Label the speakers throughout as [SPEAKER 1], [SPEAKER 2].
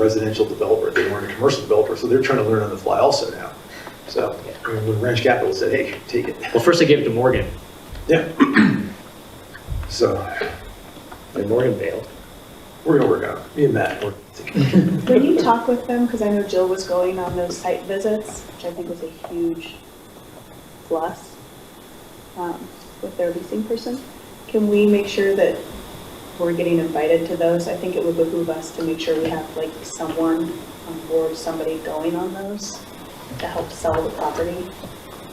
[SPEAKER 1] residential developer, they weren't a commercial developer, so they're trying to learn on the fly also now. So, I mean, when Ranch Capital said, hey, take it.
[SPEAKER 2] Well, first I gave it to Morgan,
[SPEAKER 1] Yeah. So,
[SPEAKER 2] and Morgan bailed.
[SPEAKER 1] we're gonna work on it, me and Matt, we're thinking.
[SPEAKER 3] Can you talk with them? Because I know Jill was going on those site visits, which I think was a huge plus um, with their leasing person. Can we make sure that we're getting invited to those? I think it would behoove us to make sure we have like someone on board, somebody going on those to help sell the property.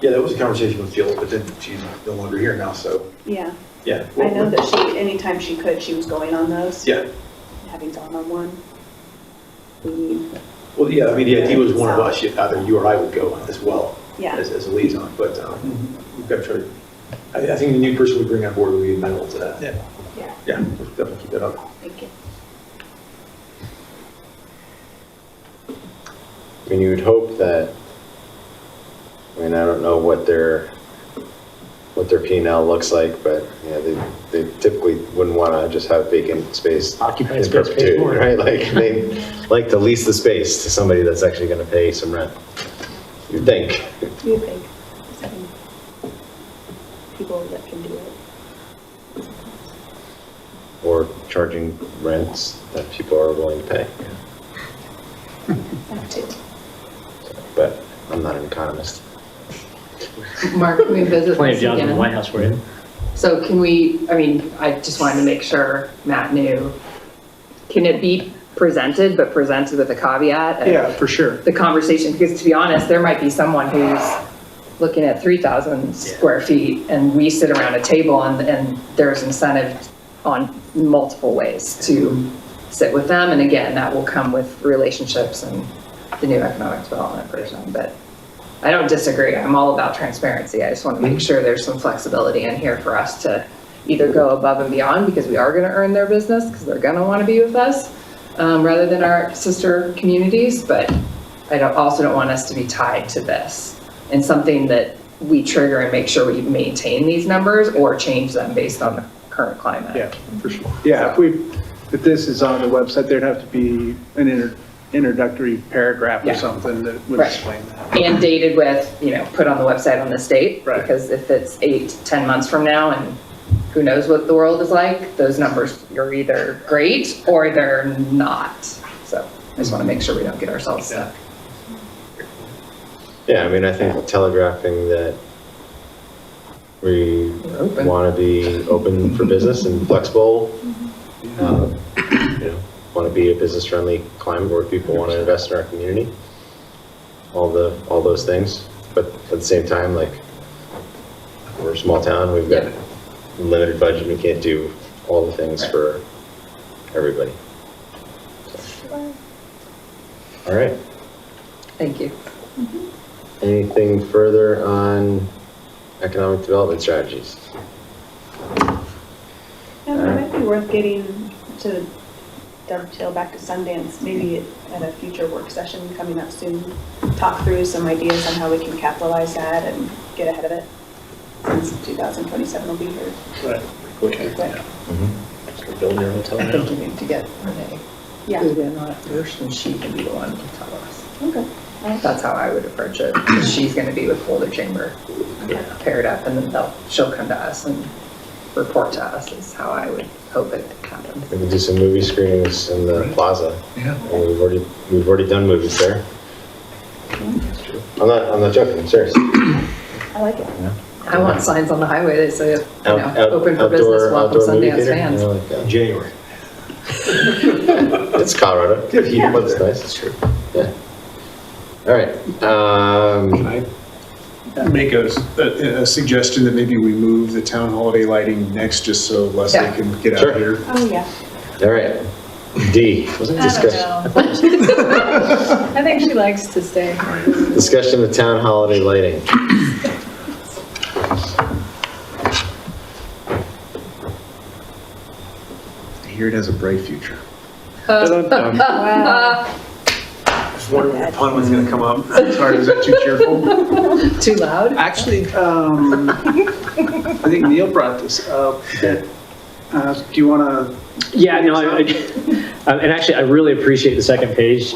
[SPEAKER 1] Yeah, that was a conversation with Jill, but then she's no longer here now, so,
[SPEAKER 3] Yeah,
[SPEAKER 1] yeah.
[SPEAKER 3] I know that she, anytime she could, she was going on those.
[SPEAKER 1] Yeah,
[SPEAKER 3] Having someone on one. We need,
[SPEAKER 1] well, yeah, I mean, the idea was one of us, either you or I would go as well.
[SPEAKER 3] yeah,
[SPEAKER 1] as, as a liaison, but um, we've got to try to, I, I think the new person we bring on board will be amenable to that. Yeah.
[SPEAKER 3] yeah,
[SPEAKER 1] Yeah, we'll definitely keep that up.
[SPEAKER 3] thank you.
[SPEAKER 4] I mean, you would hope that, I mean, I don't know what their, what their P and L looks like, but, you know, they, they typically wouldn't want to just have vacant space
[SPEAKER 2] Occupied
[SPEAKER 4] in
[SPEAKER 2] space pays
[SPEAKER 4] perpetuity,
[SPEAKER 2] more.
[SPEAKER 4] right? Like, they like to lease the space to somebody that's actually going to pay some rent, you'd think.
[SPEAKER 3] Do you think seven people that can do it?
[SPEAKER 4] Or charging rents that people are willing to pay.
[SPEAKER 3] That too.
[SPEAKER 4] But I'm not an economist.
[SPEAKER 5] Mark, can we visit
[SPEAKER 2] Plenty of
[SPEAKER 5] this
[SPEAKER 2] jobs in the White
[SPEAKER 5] again?
[SPEAKER 2] House for
[SPEAKER 4] Mm-hmm.
[SPEAKER 2] you.
[SPEAKER 5] So can we, I mean, I just wanted to make sure Matt knew. Can it be presented, but presented with a caveat? of
[SPEAKER 2] for sure.
[SPEAKER 5] The conversation, because to be honest, there might be someone who's looking at 3,000 square feet and we sit around a table and, and there's incentive on multiple ways to sit with them. And again, that will come with relationships and the new economic development person, but I don't disagree. I'm all about transparency. I just want to make sure there's some flexibility in here for us to either go above and beyond because we are going to earn their business because they're going to want to be with us um, rather than our sister communities. But I don't, also don't want us to be tied to this and something that we trigger and make sure we maintain these numbers or change them based on the current climate.
[SPEAKER 6] Yeah, for sure. Yeah, if we, if this is on the website, there'd have to be an inter- introductory paragraph
[SPEAKER 5] Yeah.
[SPEAKER 6] or something that would
[SPEAKER 5] Right.
[SPEAKER 6] explain that.
[SPEAKER 5] and dated with, you know, put on the website on this date.
[SPEAKER 6] Right.
[SPEAKER 5] Because if it's eight, 10 months from now and who knows what the world is like, those numbers are either great or they're not. So I just want to make sure we don't get ourselves stuck.
[SPEAKER 4] Yeah, I mean, I think telegraphing that we
[SPEAKER 5] We're open.
[SPEAKER 4] want to be open for business and flexible. uh, You know, want to be a business-friendly climate where people want to invest in our community. All the, all those things, but at the same time, like, we're a small town, we've got
[SPEAKER 5] Yeah.
[SPEAKER 4] limited budget, we can't do all the things
[SPEAKER 5] Right.
[SPEAKER 4] for everybody. All right,
[SPEAKER 5] Thank you.
[SPEAKER 4] anything further on economic development strategies?
[SPEAKER 3] And it might be worth getting to dovetail back to Sundance, maybe at a future work session coming up soon. Talk through some ideas on how we can capitalize that and get ahead of it. Since 2027 will be here pretty quick.
[SPEAKER 2] Building your hotel
[SPEAKER 5] I think
[SPEAKER 2] now.
[SPEAKER 5] you need to get Renee
[SPEAKER 3] Yeah,
[SPEAKER 5] Dugan on it first and she can be the one to tell us.
[SPEAKER 3] okay.
[SPEAKER 5] That's how I would approach it. 'cause She's going to be with Boulder Chamber
[SPEAKER 3] Okay.
[SPEAKER 5] paired up and then they'll, she'll come to us and report to us is how I would hope it happens.
[SPEAKER 4] We could do some movie screenings in the plaza.
[SPEAKER 6] Yeah.
[SPEAKER 4] And we've already, we've already done movies there. I'm not, I'm not joking, I'm serious.
[SPEAKER 3] I like it.
[SPEAKER 5] I want signs on the highway that say, you
[SPEAKER 4] Out-
[SPEAKER 5] know,
[SPEAKER 4] out-
[SPEAKER 5] open for
[SPEAKER 4] outdoor-
[SPEAKER 5] business, welcome
[SPEAKER 4] outdoor movie
[SPEAKER 5] Sundance
[SPEAKER 4] theater, you
[SPEAKER 5] fans.
[SPEAKER 4] know, like, uh,
[SPEAKER 1] January.
[SPEAKER 4] It's Colorado.
[SPEAKER 1] Good heat up
[SPEAKER 4] It's
[SPEAKER 1] there.
[SPEAKER 4] nice. true. Yeah. All right, um,
[SPEAKER 7] make a, a a suggestion that maybe we move the town holiday lighting next, just so Leslie
[SPEAKER 5] Yeah.
[SPEAKER 7] can get
[SPEAKER 4] Sure.
[SPEAKER 7] out here.
[SPEAKER 3] Oh, yeah.
[SPEAKER 4] all right. D, discussion,
[SPEAKER 8] I don't know. I think she likes to stay.
[SPEAKER 4] discussion of town holiday lighting.
[SPEAKER 7] Here it has a bright future.
[SPEAKER 8] Wow.
[SPEAKER 6] Just wondering if the pun was gonna come up.
[SPEAKER 7] Sorry, is that too cheerful?
[SPEAKER 5] Too loud?
[SPEAKER 6] Actually, um, I think Neil brought this up, that Uh, Do you want to
[SPEAKER 2] Uh, Yeah, no, I- I- and actually, I really appreciate the second page